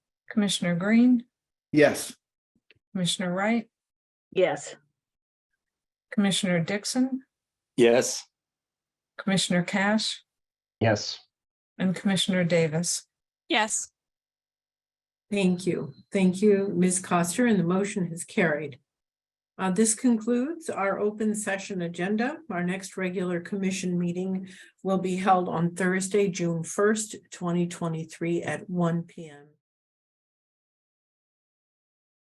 Commissioner Green, Yes. Commissioner Wright, Yes. Commissioner Dixon, Yes. Commissioner Cash, Yes. and Commissioner Davis. Yes. Thank you. Thank you, Ms. Coster, and the motion is carried. Uh, this concludes our open session agenda. Our next regular commission meeting will be held on Thursday, June first, twenty twenty-three at one P M.